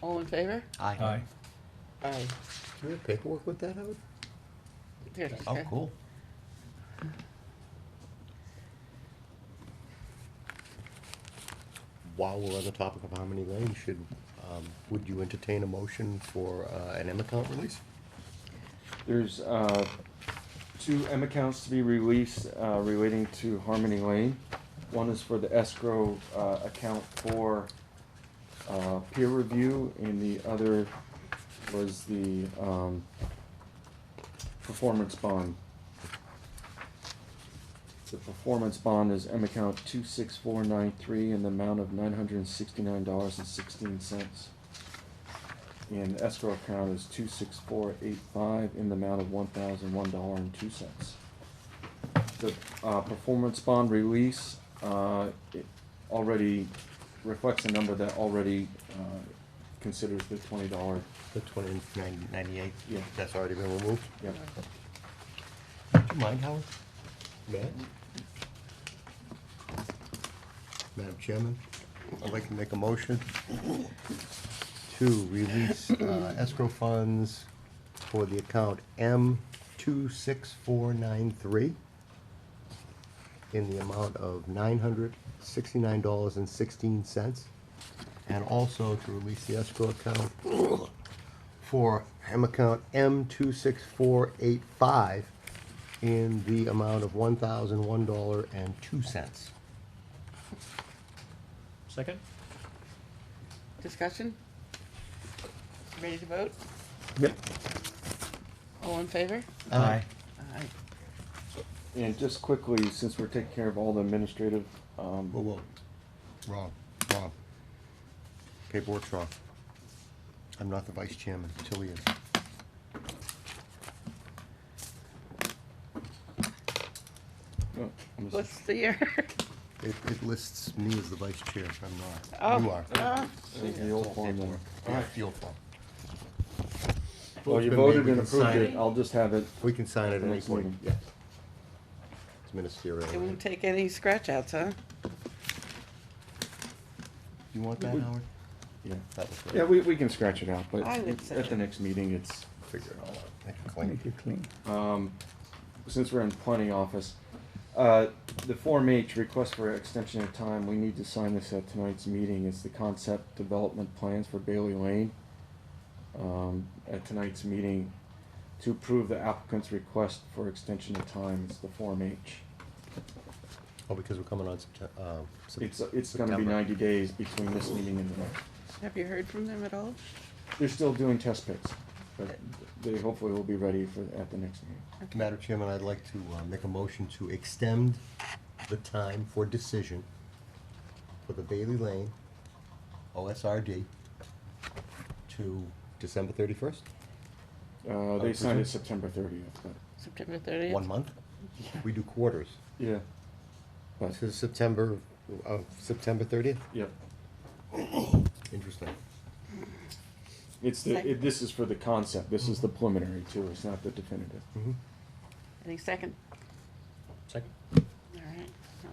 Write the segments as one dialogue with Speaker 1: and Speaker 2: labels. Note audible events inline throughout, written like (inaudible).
Speaker 1: All in favor?
Speaker 2: Aye.
Speaker 1: Aye.
Speaker 3: Do you have paperwork with that out?
Speaker 1: There's-
Speaker 3: Oh, cool. While we're on the topic of Harmony Lane, should, um, would you entertain a motion for, uh, an M account release?
Speaker 4: There's uh, two M accounts to be released uh, relating to Harmony Lane. One is for the escrow uh, account for uh, peer review, and the other was the um, performance bond. The performance bond is M account two six four nine three in the amount of nine hundred and sixty-nine dollars and sixteen cents. And escrow account is two six four eight five in the amount of one thousand one dollar and two cents. The, uh, performance bond release, uh, it already reflects a number that already, uh, considers the twenty dollar,
Speaker 3: The twenty nine ninety eight?
Speaker 4: Yeah.
Speaker 3: That's already been removed?
Speaker 4: yep.
Speaker 3: Do you mind, Howard? Matt? Madam Chairman, I'd like to make a motion to release uh, escrow funds for the account M two six four nine three in the amount of nine hundred sixty-nine dollars and sixteen cents, and also to release the escrow account for M account M two six four eight five in the amount of one thousand one dollar and two cents.
Speaker 2: Second?
Speaker 1: Discussion? Ready to vote?
Speaker 3: Yep.
Speaker 1: All in favor?
Speaker 3: Aye.
Speaker 1: Aye.
Speaker 4: And just quickly, since we're taking care of all the administrative, um,
Speaker 3: Whoa, whoa. Wrong, wrong. Paperwork's wrong. I'm not the vice chairman, Tilly is.
Speaker 4: oh, I'm just-
Speaker 1: What's the year? (laughs)
Speaker 3: It, it lists me as the vice chair, I'm
Speaker 1: Oh,
Speaker 3: not. You are.
Speaker 1: ah,
Speaker 4: There's the old form there.
Speaker 3: Yeah, fuel form.
Speaker 4: Well,
Speaker 3: Vote's been
Speaker 4: you
Speaker 3: made,
Speaker 4: voted
Speaker 3: we
Speaker 4: and
Speaker 3: can
Speaker 4: approved
Speaker 3: sign
Speaker 4: it, I'll just have it,
Speaker 3: We can sign it at any
Speaker 4: Next
Speaker 3: point,
Speaker 4: meeting.
Speaker 3: yeah. It's
Speaker 1: It
Speaker 3: ministerial.
Speaker 1: won't take any scratch outs, huh?
Speaker 3: You want that, Howard?
Speaker 4: yeah.
Speaker 3: That was
Speaker 4: Yeah,
Speaker 3: good.
Speaker 4: we, we can scratch it out, but
Speaker 1: I would say-
Speaker 4: at the next meeting, it's,
Speaker 3: Figure it all out. Make it clean.
Speaker 4: um, since we're in planning office, uh, the Form H request for extension of time, we need to sign this at tonight's meeting, it's the concept development plans for Bailey Lane. Um, at tonight's meeting, to approve the applicant's request for extension of time, it's the Form H.
Speaker 3: Oh, because we're coming on September, um. Sep-
Speaker 4: It's, uh, it's gonna be
Speaker 3: September.
Speaker 4: ninety days between this meeting and the next.
Speaker 1: Have you heard from them at all?
Speaker 4: They're still doing test pits, but they hopefully will be ready for, at the next meeting.
Speaker 3: Madam Chairman, I'd like to uh, make a motion to extend the time for decision for the Bailey Lane OSRD to December thirty-first,
Speaker 4: Uh,
Speaker 3: I
Speaker 4: they signed
Speaker 3: presume-
Speaker 4: it September thirtieth, but,
Speaker 1: September thirtieth?
Speaker 3: one month? We do quarters.
Speaker 4: yeah. But,
Speaker 3: This is September, uh, September thirtieth?
Speaker 4: yeah,
Speaker 3: Interesting.
Speaker 4: it's the, it, this is for the concept, this is the preliminary too, it's not the definitive.
Speaker 3: Mhm.
Speaker 1: Any second?
Speaker 2: Second.
Speaker 1: All right.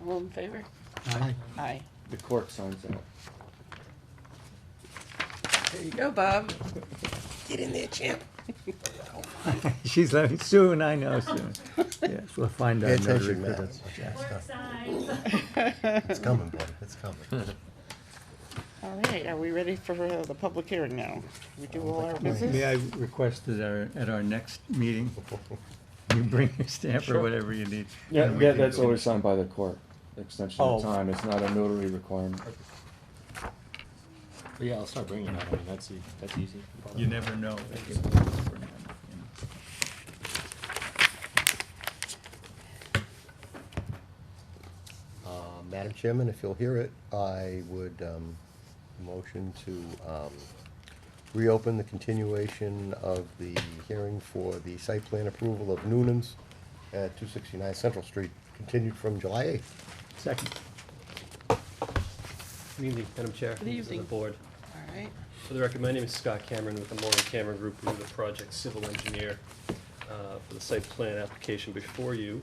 Speaker 1: All in favor?
Speaker 3: Aye.
Speaker 1: Aye.
Speaker 4: The clerk signs that.
Speaker 1: There you go, Bob.
Speaker 3: Get in
Speaker 1: (laughs)
Speaker 3: there, champ.
Speaker 5: (laughs) She's leaving soon, I know soon. Yes, we'll find
Speaker 3: Pay
Speaker 5: out. another
Speaker 3: attention, Matt.
Speaker 5: recruiter.
Speaker 6: Work signs.
Speaker 3: It's coming, buddy, it's coming.
Speaker 1: All right, are we ready for uh, the public hearing now? We do all our
Speaker 5: May I
Speaker 1: business?
Speaker 5: request that our, at our next meeting, you bring your stamp or whatever you need?
Speaker 4: Yeah,
Speaker 5: and we
Speaker 4: yeah,
Speaker 5: can
Speaker 4: that's
Speaker 5: go.
Speaker 4: always signed by the clerk, extension
Speaker 5: Oh.
Speaker 4: of time, it's not a notary requirement.
Speaker 2: But yeah, I'll start bringing that, I mean, that's, e- that's easy.
Speaker 5: You never know.
Speaker 3: Uh, Madam Chairman, if you'll hear it, I would um, motion to um, reopen the continuation of the hearing for the site plan approval of Noonan's at 269 Central Street, continued from July 8th.
Speaker 5: Second.
Speaker 7: Good evening, Madam Chair.
Speaker 1: Good
Speaker 7: members of
Speaker 1: evening.
Speaker 7: the board.
Speaker 1: All right.
Speaker 7: For the record, my name is Scott Cameron with the Moran Cameron Group. We're the project civil engineer uh, for the site plan application before you.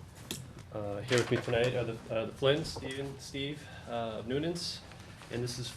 Speaker 7: Uh, Here with me tonight are the uh, the Flynn, Steven, Steve uh, of Noonan's, and this is